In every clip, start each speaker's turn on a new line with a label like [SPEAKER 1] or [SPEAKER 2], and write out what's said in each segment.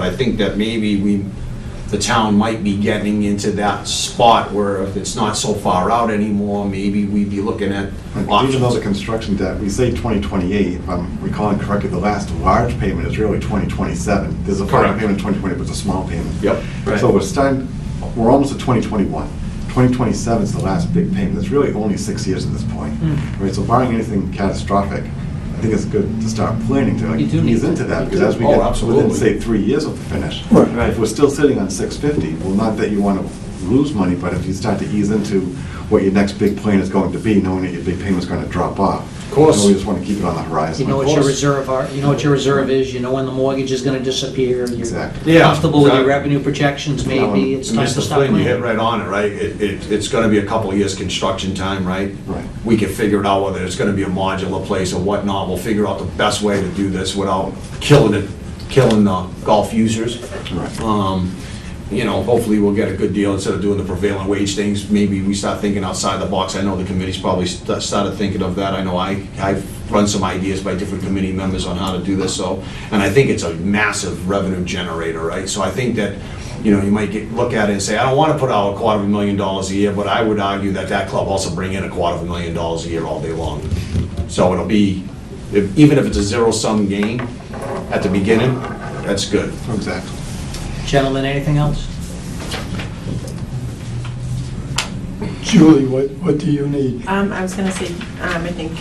[SPEAKER 1] I think that maybe we, the town might be getting into that spot where if it's not so far out anymore, maybe we'd be looking at
[SPEAKER 2] Even though
[SPEAKER 1] options.
[SPEAKER 2] the construction debt, we say 2028, if I'm recalling correctly, the last large payment is really 2027. There's a final
[SPEAKER 1] Correct.
[SPEAKER 2] payment in 2020, but it's a small payment.
[SPEAKER 1] Yep. Right.
[SPEAKER 2] So we're starting, we're almost at 2021. 2027 is the last big payment. It's really only six years at this point.
[SPEAKER 3] Hmm.
[SPEAKER 2] Right, so barring anything catastrophic, I think it's good to start planning to like
[SPEAKER 3] You do need
[SPEAKER 2] ease
[SPEAKER 3] to.
[SPEAKER 2] into that.
[SPEAKER 3] You
[SPEAKER 2] Because
[SPEAKER 3] do.
[SPEAKER 2] as we
[SPEAKER 1] Oh,
[SPEAKER 2] get within,
[SPEAKER 1] absolutely.
[SPEAKER 2] say, three years of the finish.
[SPEAKER 3] Right.
[SPEAKER 2] If we're still sitting on 650, well, not that you want to lose money, but if you start to ease into what your next big plan is going to be, knowing that your big payment's going to drop off. Of
[SPEAKER 1] course.
[SPEAKER 2] We just want to keep it on the
[SPEAKER 3] You
[SPEAKER 2] horizon.
[SPEAKER 3] know what
[SPEAKER 1] Of
[SPEAKER 3] your
[SPEAKER 1] course.
[SPEAKER 3] reserve are, you know what your reserve is, you know when the mortgage is gonna disappear. you're
[SPEAKER 2] Exactly.
[SPEAKER 1] Yeah,
[SPEAKER 3] Comfortable with your
[SPEAKER 1] exactly.
[SPEAKER 3] revenue projections maybe, it's
[SPEAKER 1] And
[SPEAKER 3] time to
[SPEAKER 1] Mr.
[SPEAKER 3] stop
[SPEAKER 1] Flynn, you hit
[SPEAKER 3] planning.
[SPEAKER 1] right on it, right? It, it, it's gonna be a couple of years construction time, right?
[SPEAKER 2] Right.
[SPEAKER 1] We can figure it out whether it's gonna be a modular place or whatnot. We'll figure out the best way to do this without killing it, killing the golf users.
[SPEAKER 2] Right.
[SPEAKER 1] Um, You know, hopefully we'll get a good deal instead of doing the prevailing wage things. Maybe we start thinking outside the box. I know the committee's probably st- started thinking of that. I know I, I've run some ideas by different committee members on how to do this, so. And I think it's a massive revenue generator, right? So I think that, you know, you might get, look at it and say, I don't want to put out a quarter of a million dollars a year, but I would argue that that club also bring in a quarter of a million dollars a year all day long. So it'll be, if- even if it's a zero-sum game at the beginning, that's good.
[SPEAKER 3] Uh.
[SPEAKER 2] Exactly.
[SPEAKER 3] Gentlemen, anything else?
[SPEAKER 4] Julie, what, what do you need?
[SPEAKER 5] Um, I was gonna say, um, I think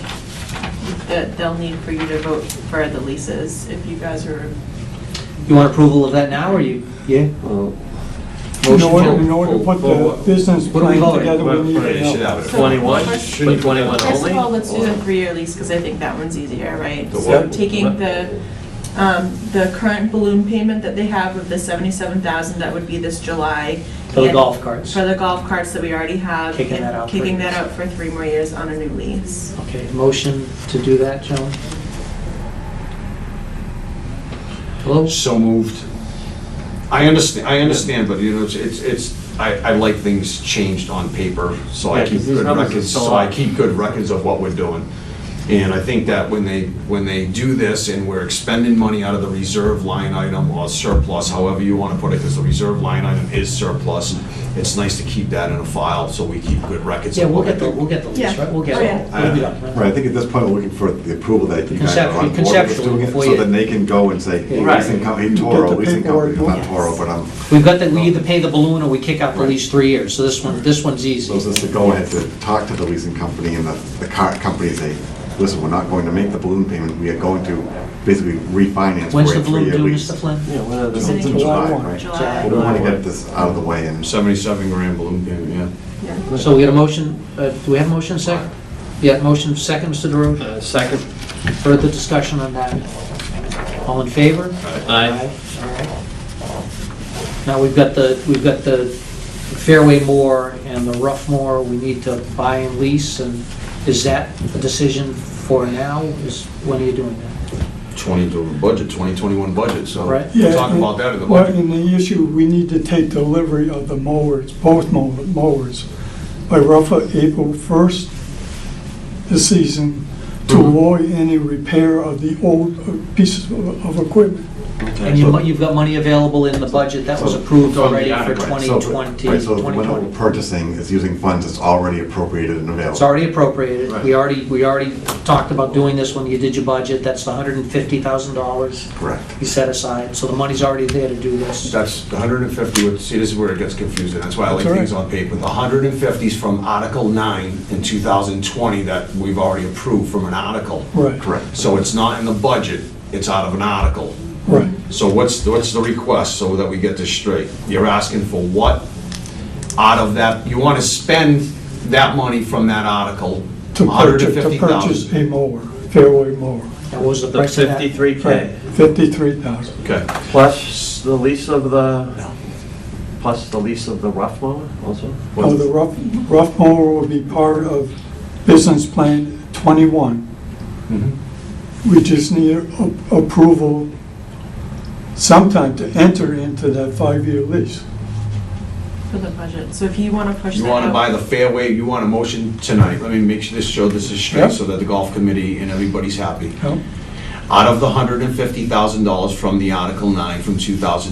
[SPEAKER 5] that they'll need for you to vote for the leases, if you guys are,
[SPEAKER 3] You want approval of that now, or you, yeah?
[SPEAKER 4] In
[SPEAKER 3] Motion
[SPEAKER 4] order,
[SPEAKER 3] to-
[SPEAKER 4] in order to put
[SPEAKER 6] Well,
[SPEAKER 4] the
[SPEAKER 6] what-
[SPEAKER 4] business
[SPEAKER 3] what are we
[SPEAKER 4] plan
[SPEAKER 3] voting?
[SPEAKER 4] together,
[SPEAKER 6] Well,
[SPEAKER 4] we need
[SPEAKER 6] right,
[SPEAKER 4] to
[SPEAKER 6] you
[SPEAKER 1] should
[SPEAKER 4] know.
[SPEAKER 1] have it.
[SPEAKER 6] 21,
[SPEAKER 5] First-
[SPEAKER 6] but 21
[SPEAKER 5] first of all,
[SPEAKER 6] only?
[SPEAKER 5] let's do the three-year lease, because I think that one's easier, right?
[SPEAKER 1] The
[SPEAKER 5] So
[SPEAKER 1] what?
[SPEAKER 5] taking the, um, the current balloon payment that they have of the seventy-seven thousand, that would be this July.
[SPEAKER 3] For the
[SPEAKER 5] and
[SPEAKER 3] golf carts.
[SPEAKER 5] For the golf carts that we already have.
[SPEAKER 3] Kicking
[SPEAKER 5] and
[SPEAKER 3] that out for
[SPEAKER 5] Kicking
[SPEAKER 3] years.
[SPEAKER 5] that out for three more years on a new lease.
[SPEAKER 3] Okay, motion to do that, gentlemen? Hello?
[SPEAKER 1] So moved. I understand, I understand, but you know, it's, it's, it's. I, I like things changed on paper, so I
[SPEAKER 6] Yeah,
[SPEAKER 1] keep
[SPEAKER 6] 'cause these
[SPEAKER 1] good
[SPEAKER 6] numbers are
[SPEAKER 1] records,
[SPEAKER 6] so
[SPEAKER 1] so I
[SPEAKER 6] off.
[SPEAKER 1] keep good records of what we're doing. And I think that when they, when they do this and we're expending money out of the reserve line item or surplus, however you want to put it, because the reserve line item is surplus, it's nice to keep that in a file so we keep good records.
[SPEAKER 3] Yeah,
[SPEAKER 1] of
[SPEAKER 3] we'll
[SPEAKER 1] what
[SPEAKER 3] get the,
[SPEAKER 1] we're
[SPEAKER 3] we'll
[SPEAKER 1] doing.
[SPEAKER 3] get the lease,
[SPEAKER 5] Yeah.
[SPEAKER 3] right? We'll get
[SPEAKER 5] Oh,
[SPEAKER 3] it.
[SPEAKER 1] yeah.
[SPEAKER 3] We'll get it.
[SPEAKER 2] Right, I think at this point, we're looking for the approval that you guys are on board
[SPEAKER 3] Conceptually-
[SPEAKER 2] with
[SPEAKER 3] conceptually
[SPEAKER 2] doing it,
[SPEAKER 3] before
[SPEAKER 2] so
[SPEAKER 3] you-
[SPEAKER 2] then they can go and say, hey,
[SPEAKER 6] Right.
[SPEAKER 2] leasing company,
[SPEAKER 4] Get
[SPEAKER 2] Toro,
[SPEAKER 4] the
[SPEAKER 2] leasing company,
[SPEAKER 4] paperwork
[SPEAKER 2] not
[SPEAKER 4] done.
[SPEAKER 2] Toro, but I'm,
[SPEAKER 3] We've got that, we either pay the balloon or we kick out the
[SPEAKER 2] Right.
[SPEAKER 3] lease three years, so this one, this one's
[SPEAKER 2] so it's
[SPEAKER 3] easy.
[SPEAKER 2] just to go ahead to talk to the leasing company and the, the car company, and say, listen, we're not going to make the balloon payment, we are going to basically refinance.
[SPEAKER 3] When's
[SPEAKER 2] for a
[SPEAKER 3] the balloon
[SPEAKER 2] three-year
[SPEAKER 3] due,
[SPEAKER 2] lease."
[SPEAKER 3] Mr. Flynn?
[SPEAKER 6] Yeah, what are
[SPEAKER 2] It's
[SPEAKER 6] the-
[SPEAKER 2] in July, right?
[SPEAKER 5] July.
[SPEAKER 2] We want to get this out of the way and.
[SPEAKER 1] Seventy-seven grand balloon payment, yeah.
[SPEAKER 5] Yeah.
[SPEAKER 3] So we got a motion, uh, do we have a motion second? Yeah, motion second, Mr. DeRoche.
[SPEAKER 6] Uh, Second,
[SPEAKER 3] Further discussion on that? All in favor?
[SPEAKER 6] aye.
[SPEAKER 3] All right. Now, we've got the, we've got the Fairway Moore and the Rough Moor, we need to buy and lease, and is that a decision for now? Is, when are you doing that?
[SPEAKER 1] Twenty to budget, twenty twenty-one budget, so
[SPEAKER 3] Right.
[SPEAKER 1] we'll talk about that in the budget.
[SPEAKER 4] Well, and the issue, we need to take delivery of the mowers, both mow- mowers, by roughly April 1st this season to
[SPEAKER 1] Mm-hmm.
[SPEAKER 4] avoid any repair of the old uh, pieces of of equipment.
[SPEAKER 3] And you, mo- you've got money available in the budget that was approved
[SPEAKER 6] From the
[SPEAKER 3] already for
[SPEAKER 6] article,
[SPEAKER 2] Right,
[SPEAKER 3] 2020,
[SPEAKER 2] so- Right, so the window
[SPEAKER 3] 2020.
[SPEAKER 2] of purchasing is using funds that's already appropriated and
[SPEAKER 3] It's
[SPEAKER 2] available.
[SPEAKER 3] already appropriated, we
[SPEAKER 6] Right.
[SPEAKER 3] already, we already talked about doing this when you did your budget, that's the $150,000
[SPEAKER 2] Correct.
[SPEAKER 3] you set aside, so the money's already there to do this.
[SPEAKER 1] That's the 150, which- see, this is where it gets confusing, that's why I like
[SPEAKER 4] That's all
[SPEAKER 1] things
[SPEAKER 4] right.
[SPEAKER 1] on paper. The 150 is from Article 9 in 2020 that we've already approved from an article.
[SPEAKER 4] Right.
[SPEAKER 2] Correct.
[SPEAKER 1] So it's not in the budget, it's out of an article.
[SPEAKER 4] Right.
[SPEAKER 1] So what's, what's the request, so that we get this straight? You're asking for what out of that, you want to spend that money from that article,
[SPEAKER 4] To purchase, to
[SPEAKER 1] 150,000?
[SPEAKER 4] purchase a mower, fairway mower,
[SPEAKER 3] That was the
[SPEAKER 6] The
[SPEAKER 3] price of that.
[SPEAKER 6] 53K,
[SPEAKER 4] 53,000.
[SPEAKER 1] Okay.
[SPEAKER 6] plus the lease of
[SPEAKER 1] No.
[SPEAKER 6] the, plus the lease of the rough mower also?
[SPEAKER 4] Now, the rough, rough mower will be part of business plan 21.
[SPEAKER 1] Mhm.
[SPEAKER 4] We just need a- approval sometime to enter into that five-year lease.
[SPEAKER 5] For the budget, so if you wanna push that
[SPEAKER 1] You want to
[SPEAKER 5] out-
[SPEAKER 1] buy the fairway, you want a motion tonight, let me make sure this show, this is
[SPEAKER 4] Yeah.
[SPEAKER 1] straight, so that the golf committee and everybody's happy.
[SPEAKER 4] Yeah.
[SPEAKER 1] Out of the $150,000 from the Article 9 from 2000.